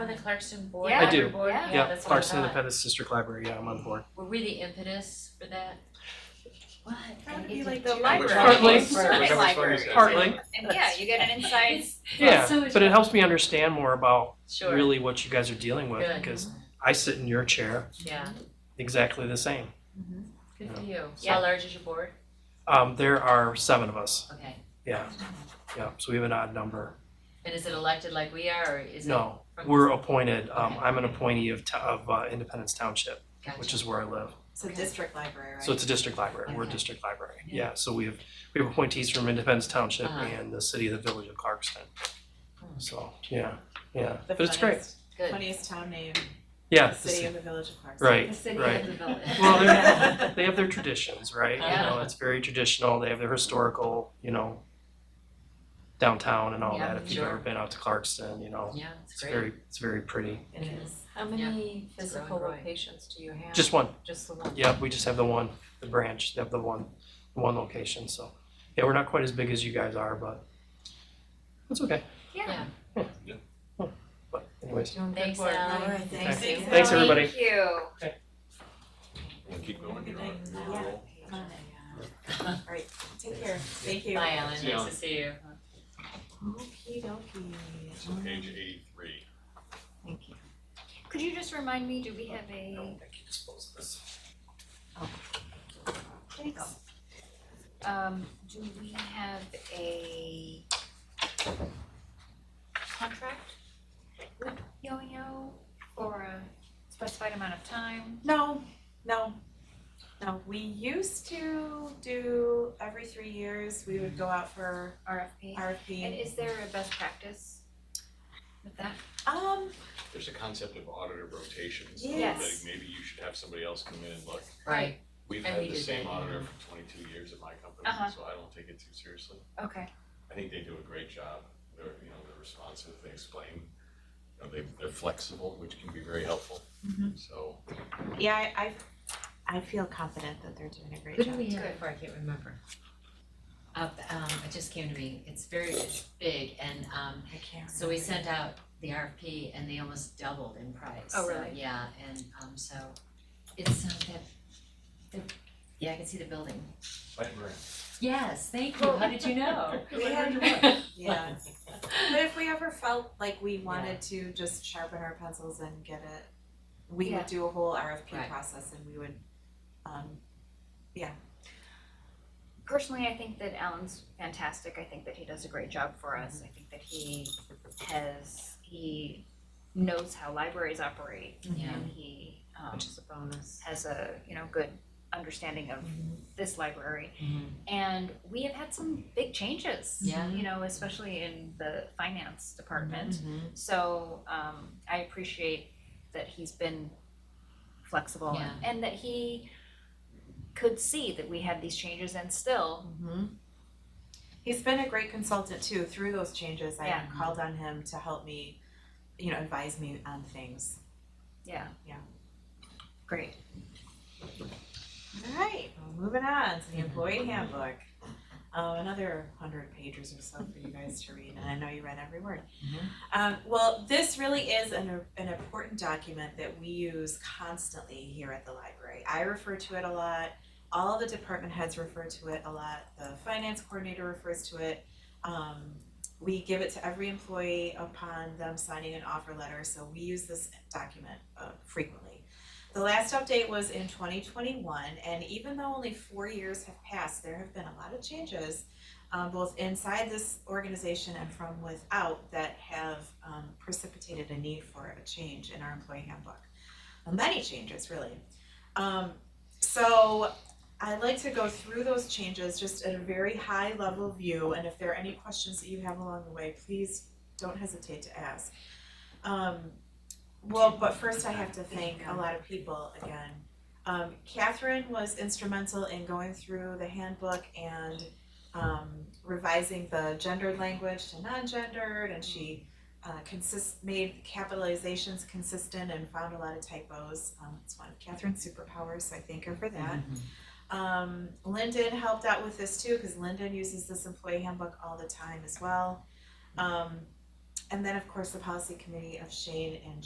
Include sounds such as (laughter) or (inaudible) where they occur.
the Clarkson board? Yeah. I do. Board? Yeah. Yeah, that's what I Clarkson thought. Independent District Library, yeah, I'm on board. Were we the impetus for that? What? That would I be get to- like the two library. Partly. is for- Service library. Partly. And yeah, you get an insight. It's- Yeah, so much but it fun. helps me understand more about Sure. really what you guys are dealing with, Good. because I sit in your chair Yeah, exactly the same. good for you. Yeah. How large is your board? Um, there are seven of us, Okay. yeah, yeah, so we have an odd number. And is it elected like we are, or is it? No, from- we're appointed, um, Okay. I'm an appointee of, to- of uh, Independence Township, which Gotcha. is where I live. It's a district library, right? So it's a district library, we're a Okay. district library, Yeah. yeah, so we have, we have appointees from Independence Township Uh-huh. and the city of the village of Clarkston. Hmm. So, yeah, yeah, The but it's great, funniest, Good. funniest town name, yeah, the the city ci- of the village of Clarksville. right, The city right. of the village. Well, they're, they have their traditions, right? You know, Yeah. it's very traditional. They have their historical, you know, downtown and all Yeah, that. If you've sure. ever been out to Clarkston, you know, (laughs) Yeah, it's it's great. very, it's very pretty. It is. How Yeah. many It's growing, physical growing. locations do you have? Just one. Just the one? Yeah, we just have the one, the branch. They have the one, the one location. So, yeah, we're not quite as big as you guys are, but it's okay. Yeah. But anyways, Doing good Thanks, work. Ally. Alright, Thanks. thank you. Thanks, everybody. Thank you. Keep going, you're on, you're on a roll. I'm on it. All right, take care, thank you. Hi, Ellen. See ya. Nice to see you. Okie dokie. So page eighty-three. Thank you. Could you just remind me, do we have a, I can dispose of this. There you go. um, do we have a contract with Yo-Yo for a specified amount of time? No, no, no, we used to do every three years, we would go out for RFP? And RFP. is there a best practice with that? Um, There's a concept of auditor rotations. Yes. Like maybe you should have somebody else come in and look. Right. We've And had we the did same that. auditor for twenty-two years at my company, Uh-huh. so I don't take it too seriously. Okay, I think they do a great job. They're, you know, they're responsive, they explain. You know, they, they're flexible, which can be very helpful. So yeah, I, I, I feel confident that they're doing a great Who job. did we have Good. before? I can't remember. Up, um, it just came to me. It's very, it's big and, um, I can't so we remember. sent out the RFP and they almost doubled in price. Oh, So, really? Yeah, and, um, so it's, um, that, the, yeah, I can see the building. Yes, thank you. How did you (laughs) know? We had, Mm-hmm. (laughs) yeah. But if we ever felt like we wanted to just sharpen our pencils and get it, we Yeah. would do a whole RFP Right. process and we would, um, personally, I think that Alan's fantastic. I think that he does a great job for Mm-hmm. us. I think that he has, he knows how libraries operate. Mm-hmm. Yeah. And he, um, Which is a bonus. has a, you know, good understanding of Mhm. this library. Mhm. And we have had some big changes. Yeah. Mm-hmm. You know, especially in the finance department. So, um, I appreciate that he's been flexible Yeah. and that he could see that we had these changes and still he's been a great consultant too. Through those changes, I Yeah. called on him to help me, you know, advise me on things. Yeah. Yeah. Great. All right, well, moving on to the employee handbook. Uh, another hundred pages or so for you guys to read, and I know you read every word. Mhm. Um, well, this really is an, an important document that we use constantly here at the library. I refer to it a lot. All the department heads refer to it a lot. The finance coordinator refers to it. Um, we give it to every employee upon them signing an offer letter, so we use this document uh, frequently. The last update was in twenty twenty-one, and even though only four years have passed, there have been a lot of changes, um, both inside this organization and from without that have, um, precipitated a need for a change in our employee handbook. Many changes, really. Um, so I'd like to go through those changes just at a very high level view, and if there are any questions that you have along the way, please don't hesitate to ask. Um, well, but first I have to thank a lot of people again. Um, Catherine was instrumental in going through the handbook and um, revising the gendered language to non-gendered, and she uh, consist made capitalizations consistent and found a lot of typos. Um, it's one of Catherine's superpowers, so I thank her for that. Um, Lyndon helped out with this too, because Lyndon uses this employee handbook all the time as well. Um, and then, of course, the policy committee of Shane and